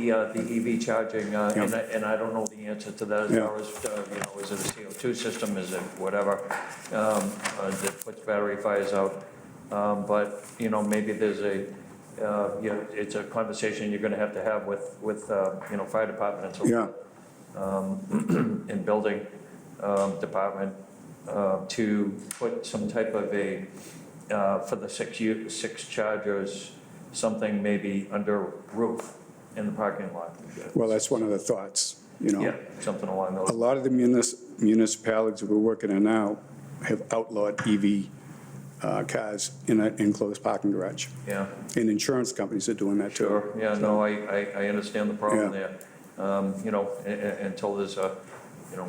the, uh, the EV charging, uh, and Yeah. I, and I don't know the answer to that as Yeah. far as, uh, you know, is it a CO2 system, is it whatever, um, uh, that puts battery fires out? Um, But, you know, maybe there's a, uh, you know, it's a conversation you're gonna have to have with, with, uh, you know, fire department and so Yeah, and building um, department uh, to put some type of a, uh, for the six, u- six chargers, something maybe under roof in the parking lot. well, that's one of the thoughts, you Yeah, know. something along A those, lot of the munis- municipalities we're working on now have outlawed EV uh, cars in an enclosed parking garage. yeah. And insurance companies are doing that too. Sure, yeah, no, I, I, I understand the problem Yeah. there. Um, You know, a- a- until there's a, you know,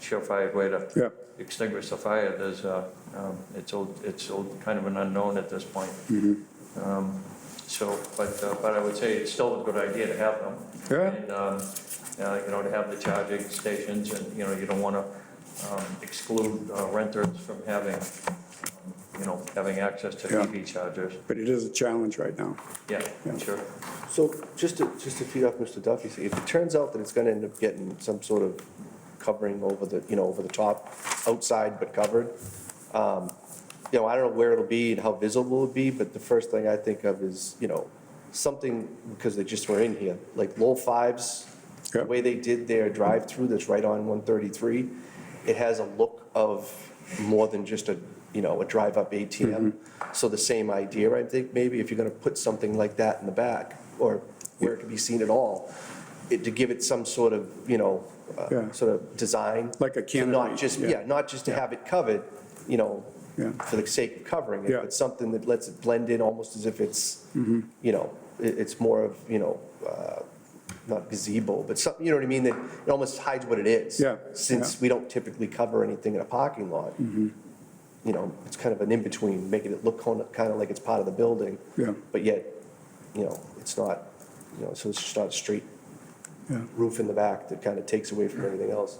surefire way to Yeah, extinguish the fire, there's, a, um, it's all, it's all kind of an unknown at this point. Mm-hmm. Um, So, but, uh, but I would say it's still a good idea to have them. Yeah. And, um, uh, you know, to have the charging stations, and, you know, you don't want to exclude uh, renters from having, um, you know, having access to Yeah. EV chargers. but it is a challenge right now. Yeah, Yeah. sure. So just to, just to feed off Mr. Duffy, if it turns out that it's gonna end up getting some sort of covering over the, you know, over the top, outside but covered, um, you know, I don't know where it'll be and how visible it'll be, but the first thing I think of is, you know, something, because they just were in here, like low fives, the Yep. way they did their drive-through that's right on 133, it has a look of more than just a, you know, a drive-up ATM. Mm-hmm. So the same idea, I think, maybe if you're gonna put something like that in the back, or where it can be seen at all, it, to give it some sort of, you know, uh, Yeah. sort of design. Like a to canopy, Not just, yeah. yeah, not just to have it covered, you know, Yeah. for the sake of covering it, Yeah. Mm-hmm. but something that lets it blend in almost as if it's, you know, it, it's more of, you know, uh, not gazebo, but something, you know what I mean, that it almost hides what it is. Yeah, Since yeah. Mm-hmm. we don't typically cover anything in a parking lot. You know, it's kind of an in-between, making it look kind of, kind of like it's part of the building. Yeah. But yet, you know, it's not, you know, so it's just not a straight Yeah. roof in the back that kind of takes away from everything else.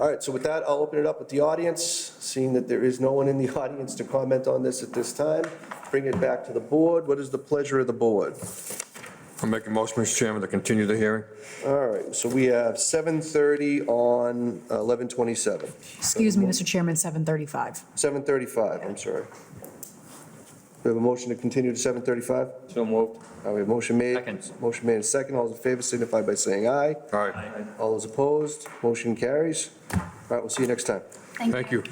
All right, so with that, I'll open it up with the audience, seeing that there is no one in the audience to comment on this at this time. Bring it back to the board. What is the pleasure of the board? I'm making motion, Mr. Chairman, to continue the hearing. All right, so we have 7:30 on 11:27, Excuse me, Mr. Chairman, 7:35. 7:35, I'm sorry. We have a motion to continue to 7:35? So moved. All right, motion made. Second. Motion made and second. All those in favor signify by saying aye. All right, All those opposed, motion carries. All right, we'll see you next time. thank you.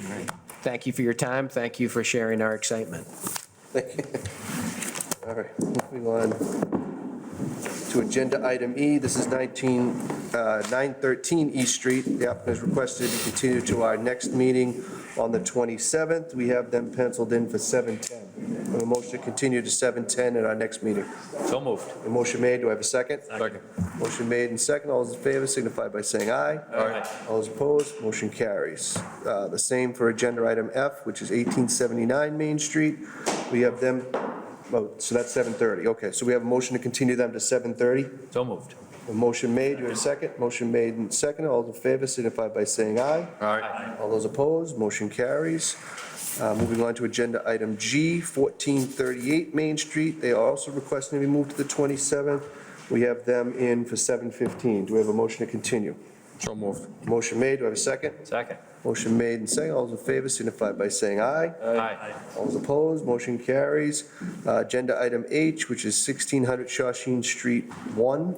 Thank you for your time. Thank you for sharing our excitement. Thank you. All right, moving on to agenda item E. This is 19, uh, 913 East Street. The applicant has requested to continue to our next meeting on the 27th. We have them penciled in for 7:10. We have A motion to continue to 7:10 at our next meeting. So moved. A motion made, do I have a second? Second. Motion made and second. All those in favor signify by saying aye. All right. All those opposed, motion carries. Uh, The same for agenda item F, which is 1879 Main Street. We have them, oh, so that's 7:30, okay. So we have a motion to continue them to 7:30. So moved. A motion made, you have a second? Motion made and second, all those in favor signify by saying aye. All right, All those opposed, motion carries. Uh, Moving on to agenda item G, 1438 Main Street. They are also requesting to be moved to the 27th. We have them in for 7:15. Do we have a motion to continue? so moved. Motion made, do I have a second? Second. Motion made and second. All those in favor signify by saying aye. Aye. All those opposed, motion carries. Uh, Agenda item H, which is 1600 Shawshene Street 1.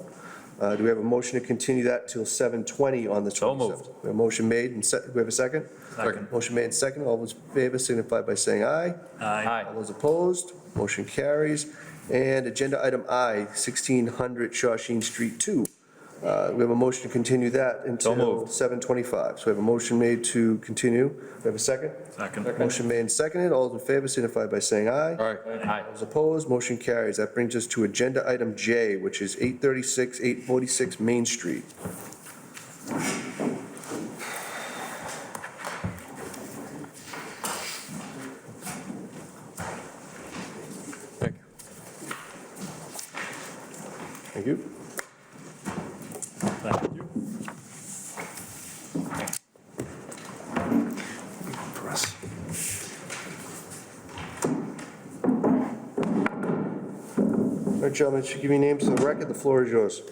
Uh, Do we have a motion to continue that till 7:20 on the 27th? So moved. We have a motion made and se, do we have a second? Second. Motion made and second. All those in favor signify by saying aye. Aye. All those opposed, motion carries. And agenda item I, 1600 Shawshene Street 2. Uh, We have a motion to continue that until moved. 7:25. So we have a motion made to continue. We have a second? Second. Motion made and seconded. All those in favor signify by saying aye. All right, Aye. All those opposed, motion carries. That brings us to agenda item J, which is 836, 846 Main Street. thank you. Thank you. All right, gentlemen, should give your names to the record. The floor is yours.